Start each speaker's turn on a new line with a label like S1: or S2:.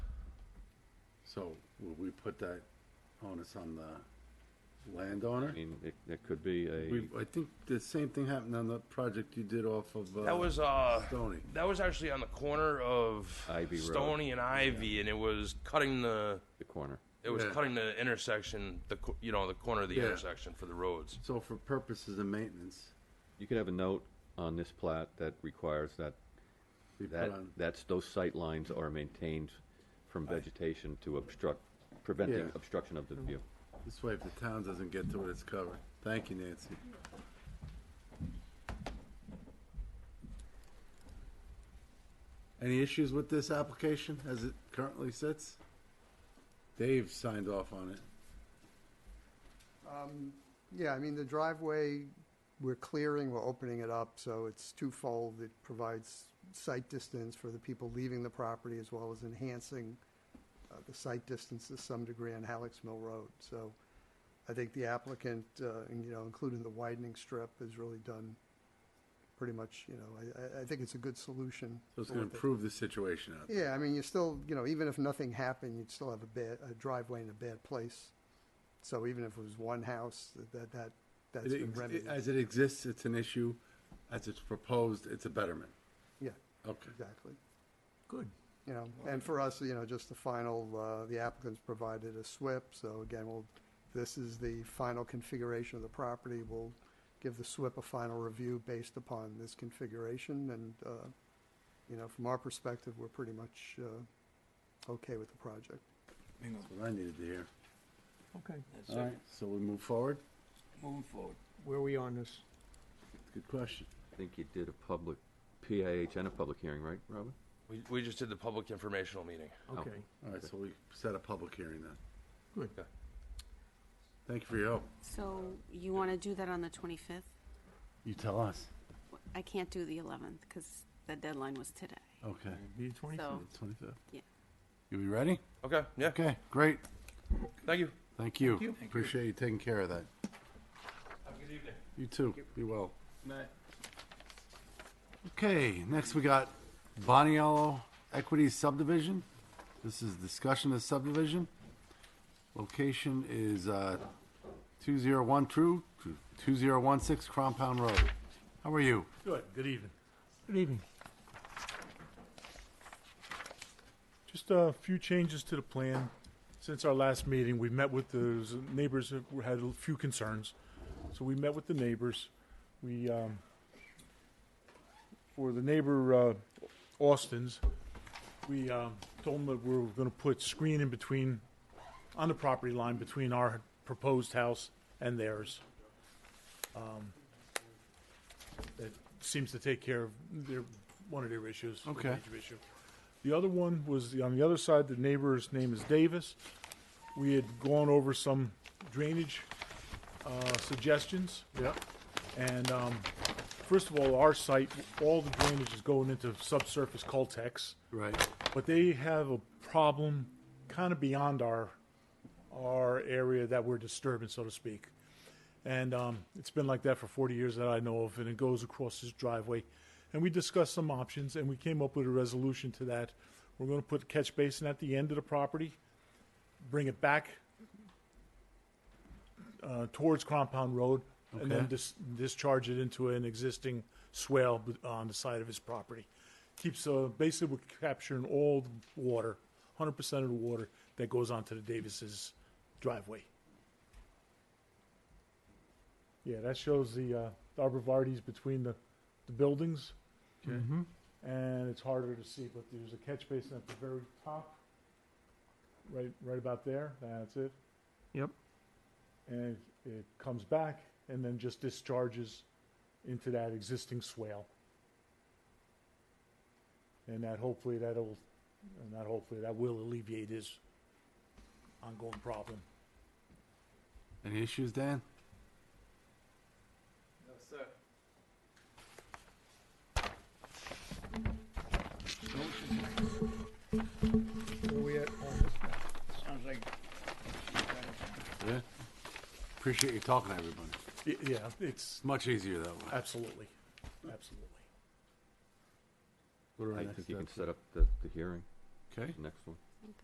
S1: So will we put that onus on the landowner?
S2: I mean, it, it could be
S1: We,
S2: a,
S1: I think the same thing happened on the project you did off of, uh.
S3: That was uh,
S1: Stony.
S3: that was actually on the corner of
S2: Ivy Road.
S3: Stony and Ivy, and it was cutting the
S2: the corner.
S3: it was
S1: Yeah.
S3: cutting the intersection, the co- you know the corner of the
S1: Yeah.
S3: intersection for the roads.
S1: So for purposes of maintenance,
S2: You could have a note on this plat that requires that,
S1: we put
S2: that,
S1: on,
S2: that's, those sight lines are maintained from vegetation to obstruct, preventing
S1: Yeah.
S2: obstruction of the view.
S1: this way if the town doesn't get to it, it's covered. Thank you, Nancy. Any issues with this application as it currently sits? Dave signed off on it.
S4: Yeah, I mean, the driveway, we're clearing, we're opening it up, so it's twofold. It provides sight distance for the people leaving the property as well as enhancing uh, the sight distance to some degree on Halleck's Mill Road. So I think the applicant, uh, and, you know, including the widening strip, has really done pretty much, you know, I- I, I think it's a good solution.
S1: So it's gonna improve the situation out there.
S4: Yeah, I mean, you still, you know, even if nothing happened, you'd still have a bad, a driveway in a bad place. So even if it was one house, that- that, that, that's
S1: It
S4: been
S1: ex-
S4: remedied.
S1: As it exists, it's an issue. As it's proposed, it's a betterment.
S4: Yeah,
S1: Okay.
S4: exactly.
S5: Good.
S4: You know, and for us, you know, just the final, uh, the applicant's provided a SWIP, so again, we'll, this is the final configuration of the property. We'll give the SWIP a final review based upon this configuration, and, uh, you know, from our perspective, we're pretty much, uh, okay with the project.
S5: Hang on.
S1: That's what I needed to hear.
S5: Okay,
S1: All right, so we move forward?
S5: moving forward. Where are we on this?
S1: Good question.
S2: I think you did a public, PIH and a public hearing, right, Robin?
S3: We we just did the public informational meeting.
S5: Okay,
S1: All right, so we set a public hearing then.
S5: good.
S1: Thank you for your help.
S6: So you want to do that on the 25th?
S1: You tell us.
S6: I can't do the 11th because the deadline was today.
S1: Okay.
S5: Be the twenty-fifth.
S6: So,
S1: Twenty-fifth.
S6: Oh. Yeah.
S1: You be ready?
S3: Okay, yeah,
S1: Okay, great.
S3: thank you.
S1: Thank you.
S5: you. Thank you.
S1: Appreciate you taking care of that.
S3: Have a good evening.
S1: You too. Be well. Okay, next we got Boniello Equity Subdivision. This is discussion of subdivision. Location is uh, 201 True, 2016 Crompound Road. How are you?
S7: Good, good evening.
S5: Good evening.
S7: Just a few changes to the plan. Since our last meeting, we've met with the neighbors who had a few concerns. So we met with the neighbors. We, um, for the neighbor, uh, Austin's, we, um, told them that we were gonna put screen in between, on the property line between our proposed house and theirs. Um, That seems to take care of their, one of their issues. their
S1: Okay.
S7: major issue. The other one was the- on the other side, the neighbor's name is Davis. We had gone over some drainage uh, suggestions.
S1: Yep.
S7: And um, first of all, our site, all the drainage is going into subsurface Coltex,
S1: Right.
S7: but they have a problem kind of beyond our our area that we're disturbing, so to speak. And um, it's been like that for 40 years that I know of, and it goes across his driveway. And we discussed some options, and we came up with a resolution to that. We're going to put a catch basin at the end of the property, bring it back uh, towards Compound Road, and then
S1: Okay.
S7: dis- discharge it into an existing swale b- on the side of his property. Keeps uh, basically we're capturing all the water, 100% of the water that goes onto the Davis's driveway. Yeah, that shows the, uh, the arborvitae's between the, the buildings. And it's harder to see, but there's a catch basin at the very top. Right, right about there. That's it.
S5: Yep.
S7: And it, it comes back and then just discharges into that existing swale. And that hopefully that'll, and that hopefully that will alleviate his ongoing problem.
S1: Any issues, Dan?
S5: Where we at on this now?
S8: Sounds like
S1: Yeah. Appreciate you talking to everybody.
S7: Y- Yeah, it's
S1: It's much easier that way.
S7: absolutely, absolutely.
S1: What are our
S2: I
S1: next
S2: think you can
S1: steps?
S2: set up the, the hearing,
S1: Okay,
S2: the next one.